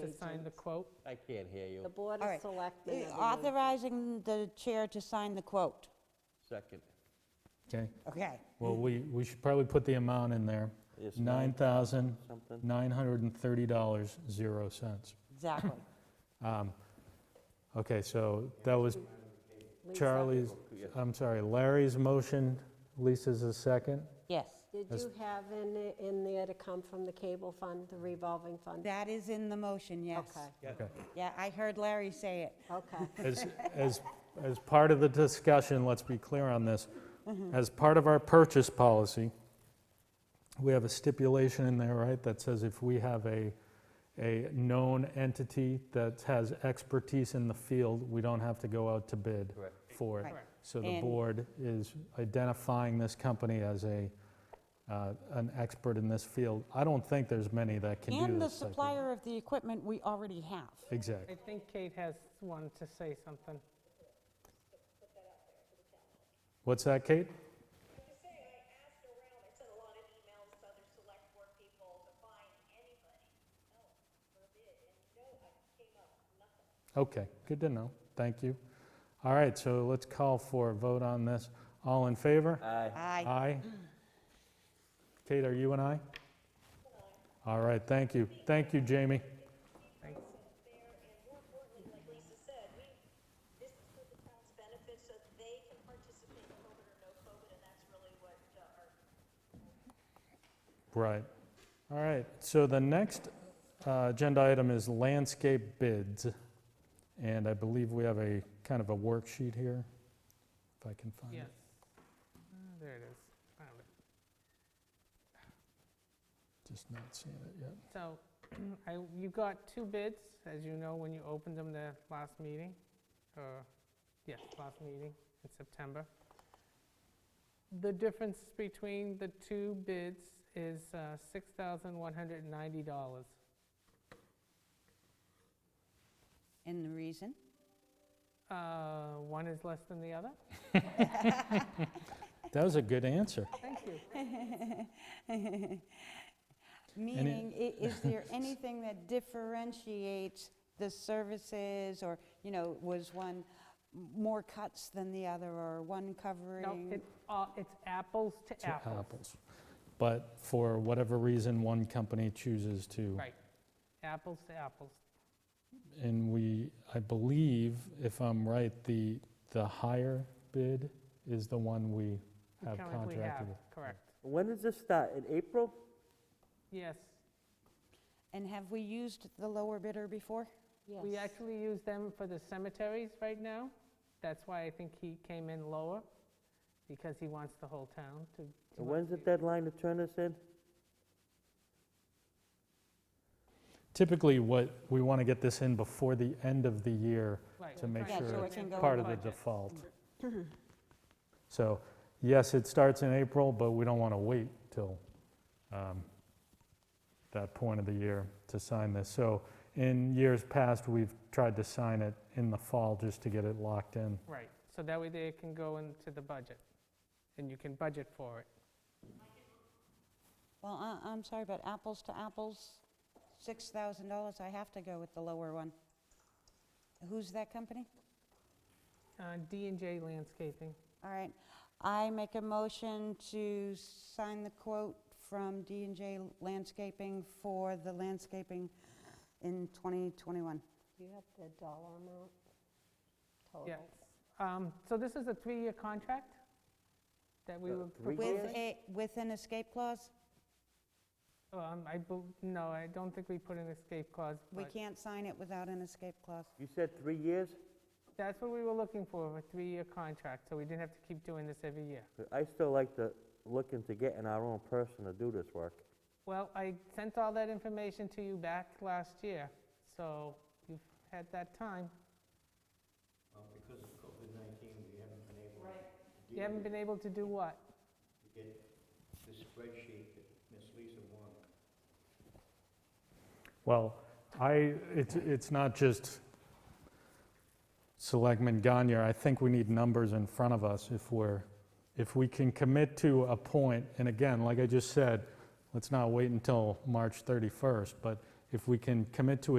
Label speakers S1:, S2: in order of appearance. S1: to sign the quote?
S2: I can't hear
S3: The
S2: you.
S3: Board
S4: All
S3: of
S4: right.
S3: Selectmen.
S4: Uh,
S3: of the Mun-
S4: Authorizing the chair to sign the quote.
S2: Second.
S5: Okay,
S4: Okay.
S5: well, we, we should probably put the amount in there.
S2: It's
S5: Nine thousand,
S2: Something.
S5: nine hundred and thirty dollars, zero cents.
S4: Exactly.
S5: Okay, so that was
S3: Lisa,
S5: Charlie's, I'm sorry, Larry's motion, Lisa's a second.
S4: Yes.
S3: Did you have in, the- in there to come from the cable fund, the revolving fund?
S4: That is in the motion, yes.
S3: Okay,
S5: Okay.
S4: Yeah, I heard Larry say it.
S3: okay.
S5: As, as, as part of the discussion, let's be clear on this.
S4: Mm-hmm.
S5: As part of our purchase policy, we have a stipulation in there, right, that says if we have a, a known entity that has expertise in the field, we don't have to go out to bid
S2: Correct.
S5: for it.
S4: Right.
S5: So the
S4: And-
S5: board is identifying this company as a, uh, an expert in this field. I don't think there's many that can do this.
S4: And the
S5: type of-
S4: supplier of the equipment we already have.
S1: I
S5: Exactly.
S1: think Kate has one to say something.
S5: What's that, Kate?
S6: to say, I asked around, I sent a lot of emails to other select board people to find anybody else for a bid, and no, I came up with nothing.
S5: Okay, good to know. Thank you. All right, so let's call for a vote on this. All in favor?
S2: Aye.
S4: Aye.
S5: Aye. Kate, are you an aye? All right, thank you. Thank you, Jamie.
S1: Thanks.
S6: There, and more importantly, like Lisa said, we, this is for the town's benefit, so that they can participate in COVID or no COVID, and that's really what uh, our
S5: Right. All right, so the next uh, agenda item is landscape bids. And I believe we have a kind of a worksheet here, if I can find
S1: Yes.
S5: it.
S1: Uh, There it is. Found it.
S5: Just not seeing it yet.
S1: So I, you got two bids, as you know, when you opened them the last meeting, or, yes, last meeting in September. The difference between the two bids is uh, $6,190.
S4: And the reason?
S1: Uh, One is less than the other?
S5: That was a good answer.
S1: Thank you.
S4: Meaning, i- is there anything that differentiates the services, or, you know, was one more cuts than the other, or one
S1: No,
S4: covering?
S1: it- uh, it's apples to
S5: to
S1: apples.
S5: apples. But for whatever reason, one company chooses to.
S1: Right, apples to apples.
S5: And we, I believe, if I'm right, the, the higher bid is the one we
S1: We
S5: have
S1: currently have,
S5: contracted with.
S1: Correct,
S2: When does this start? In April?
S1: yes.
S4: And have we used the lower bidder before?
S1: We
S3: Yes.
S1: actually use them for the cemeteries right now. That's why I think he came in lower, because he wants the whole town to. he
S2: And
S1: wants
S2: When's the
S1: to-
S2: deadline to turn this in?
S5: Typically, what, we want to get this in before the end of the year,
S1: Right,
S5: to
S1: we're
S5: make
S1: trying
S4: sure
S1: put
S4: it's
S1: in
S4: in
S1: the
S4: Go
S5: part of the
S1: budget.
S5: default. So, yes, it starts in April, but we don't want to wait till um, that point of the year to sign this. So in years past, we've tried to sign it in the fall just to get it locked in.
S1: Right, so that way they can go into the budget, and you can budget for it.
S4: Well, I- I'm sorry, but apples to apples, $6,000, I have to go with the lower one. Who's that company?
S1: Uh, D and J Landscaping,
S4: All right, I make a motion to sign the quote from d and J Landscaping for the landscaping in 2021.
S3: Do you have the dollar amount
S1: yeah.
S3: total?
S1: Um, So this is a three-year contract that we
S2: Uh,
S1: were
S2: three
S4: With
S2: years?
S1: proposing?
S4: a, with an escape clause?
S1: Um, I, bel- no, I don't think we put an escape clause,
S4: We
S1: but
S4: can't sign it without an escape clause.
S2: You said three years?
S1: that's what we were looking for, a three-year contract, so we didn't have to keep doing this every year.
S2: I still like to, look into getting our own person to do this work.
S1: Well, I sent all that information to you back last year, so you've had that time. Because of COVID-19, we haven't been able. You haven't been able to do what?
S5: Well, I, it's, it's not just Selectman Gagne. I think we need numbers in front of us if we're, if we can commit to a point, and again, like I just said, let's not wait until March 31st, but if we can commit to a